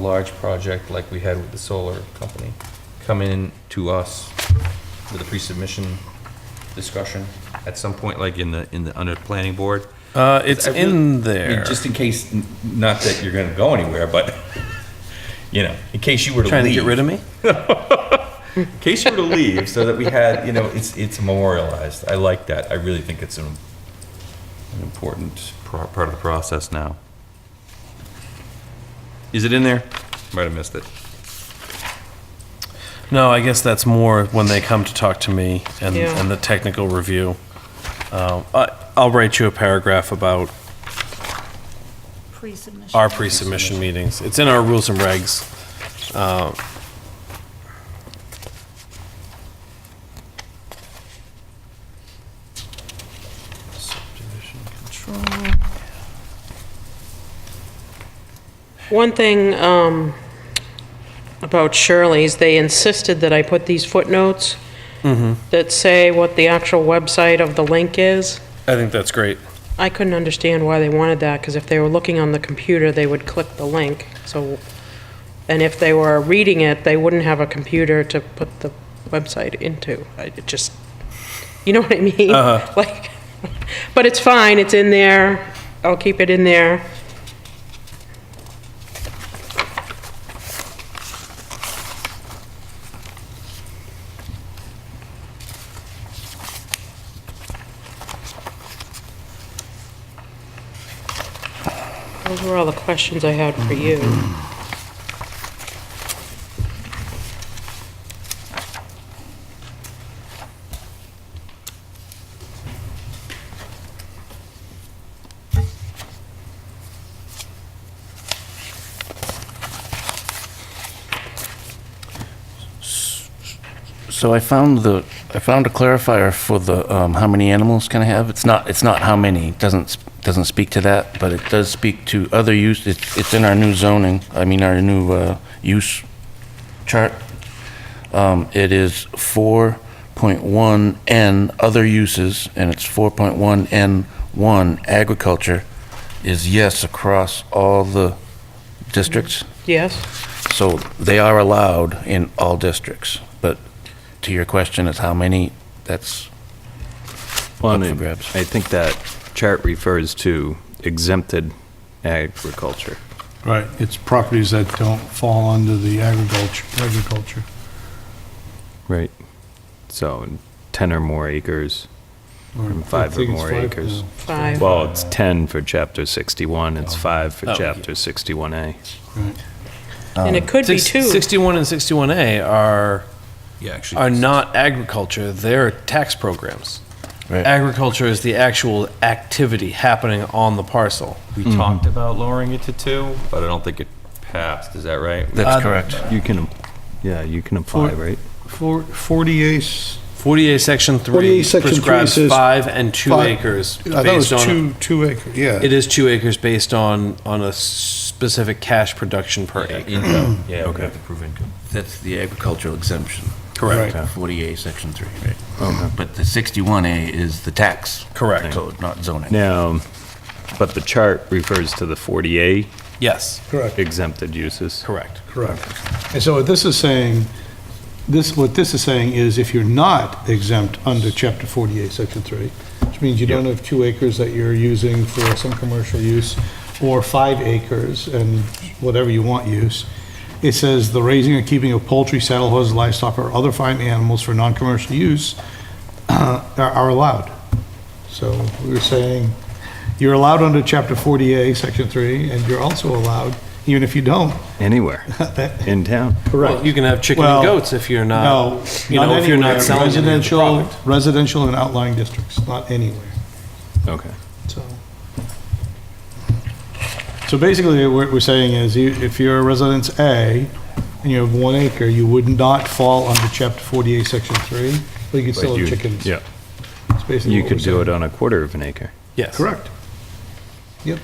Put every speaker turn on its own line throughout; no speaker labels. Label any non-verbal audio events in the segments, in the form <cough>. large project like we had with the solar company come in to us with a pre-submission discussion at some point, like in the, in the, under planning board?
Uh, it's
I really-
in
I mean,
there.
Just in case, n- not that you're gonna go anywhere, but, <laughs> you know, in case you were to leave.
Trying to get rid of me?
In case you were to leave, so that we had, you know, it's, it's memorialized. I like that. I really think it's an, an important pro- part of the process now. Is it in there? Might have missed it.
No, I guess that's more when they come to talk to me and,
Yeah.
and the technical review. Uh, I, I'll write you a paragraph about
Pre-submission.
our pre-submission meetings. It's in our rules and regs. Uh,
One thing um, about Shirley's, they insisted that I put these footnotes that say what the actual website of the link is.
I think that's great.
I couldn't understand why they wanted that, because if they were looking on the computer, they would click the link, so, and if they were reading it, they wouldn't have a computer to put the website into. I it just, you know what I <laughs> mean?
Uh-huh.
Like, but it's fine, it's in there, I'll keep it in there. Those were all the questions I had for you.
So I found the, I found a clarifier for the, um, how many animals can I have? It's not, it's not how many, It doesn't, s- doesn't speak to that, but it does speak to other use, it's, it's in our new zoning, I mean, our new, uh, use chart. Um, it is four point one N, other uses, and it's four point one N one, agriculture, is yes across all the districts.
Yes?
So they are allowed in all districts, but to your question is how many, that's,
Well,
Up for
and
grabs.
I think that chart refers to exempted agriculture.
Right, it's properties that don't fall under the agriculture, agriculture.
Right. So 10 or more acres.
or-
Five
I
or
think it's
more
five
acres.
now.
Five?
Well, it's 10 for chapter 61, it's five for
Oh, yeah.
chapter 61A.
Right.
And it could be
Six-
two.
61 and 61A are,
Yeah, actually.
are not agriculture, they're tax programs.
Right.
Agriculture is the actual activity happening on the parcel.
We talked about lowering it to two, but I don't think it passed. Is that right?
Uh,
that's correct.
You can, yeah, you can apply,
For-
right?
Four- 48,
48 Section 3
48 Section 3
prescribes
says
five and two
five-
acres.
I thought it was
based on-
two, two acre, yeah.
It is two acres based on, on a specific cash production per
Yeah,
acre.
income. Yeah, we have to prove income.
That's the agricultural exemption,
Correct.
40A, Section 3, right? But the 61A is the tax.
Correct.
Code, not zoning.
Now, but the chart refers to the 40A
Yes,
Correct,
exempted uses.
correct.
correct. And so what this is saying, this, what this is saying is if you're not exempt under chapter 48, section 3, which means you don't have two acres that you're using for some commercial use, or five acres and whatever you want use, it says the raising and keeping of poultry, saddle horses, livestock, or other fine animals for non-commercial use <clears throat> uh, are are allowed. So we were saying, you're allowed under chapter 48, section 3, and you're also allowed, even if you don't. <laughs>
Anywhere in town.
Well, You can have chicken
Well,
and goats if you're
No,
not, you
not
know, if you're
anywhere.
not selling any of the
Residential,
product.
residential and outlying districts, not anywhere,
Okay.
so. So basically, what we're saying is, you- if you're a residence A and you have one acre, you would not fall under chapter 48, section 3, but you could still have chickens.
Yeah,
That's basically
you
what
could
we're
do
saying.
it on a quarter of an acre.
Yes.
Correct. Yep.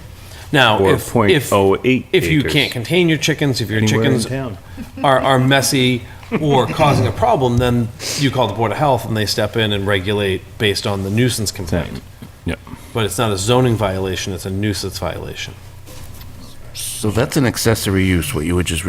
Now,
Or
if, if,
0.08
if you
acres.
can't contain your chickens, if your
Anywhere in
chickens
town.
are, are messy or causing a problem, then you call the Board of Health and they step in and regulate based on the nuisance complaint.
Yep.
But it's not a zoning violation, it's a nuisance violation.
So that's an accessory use, what you were just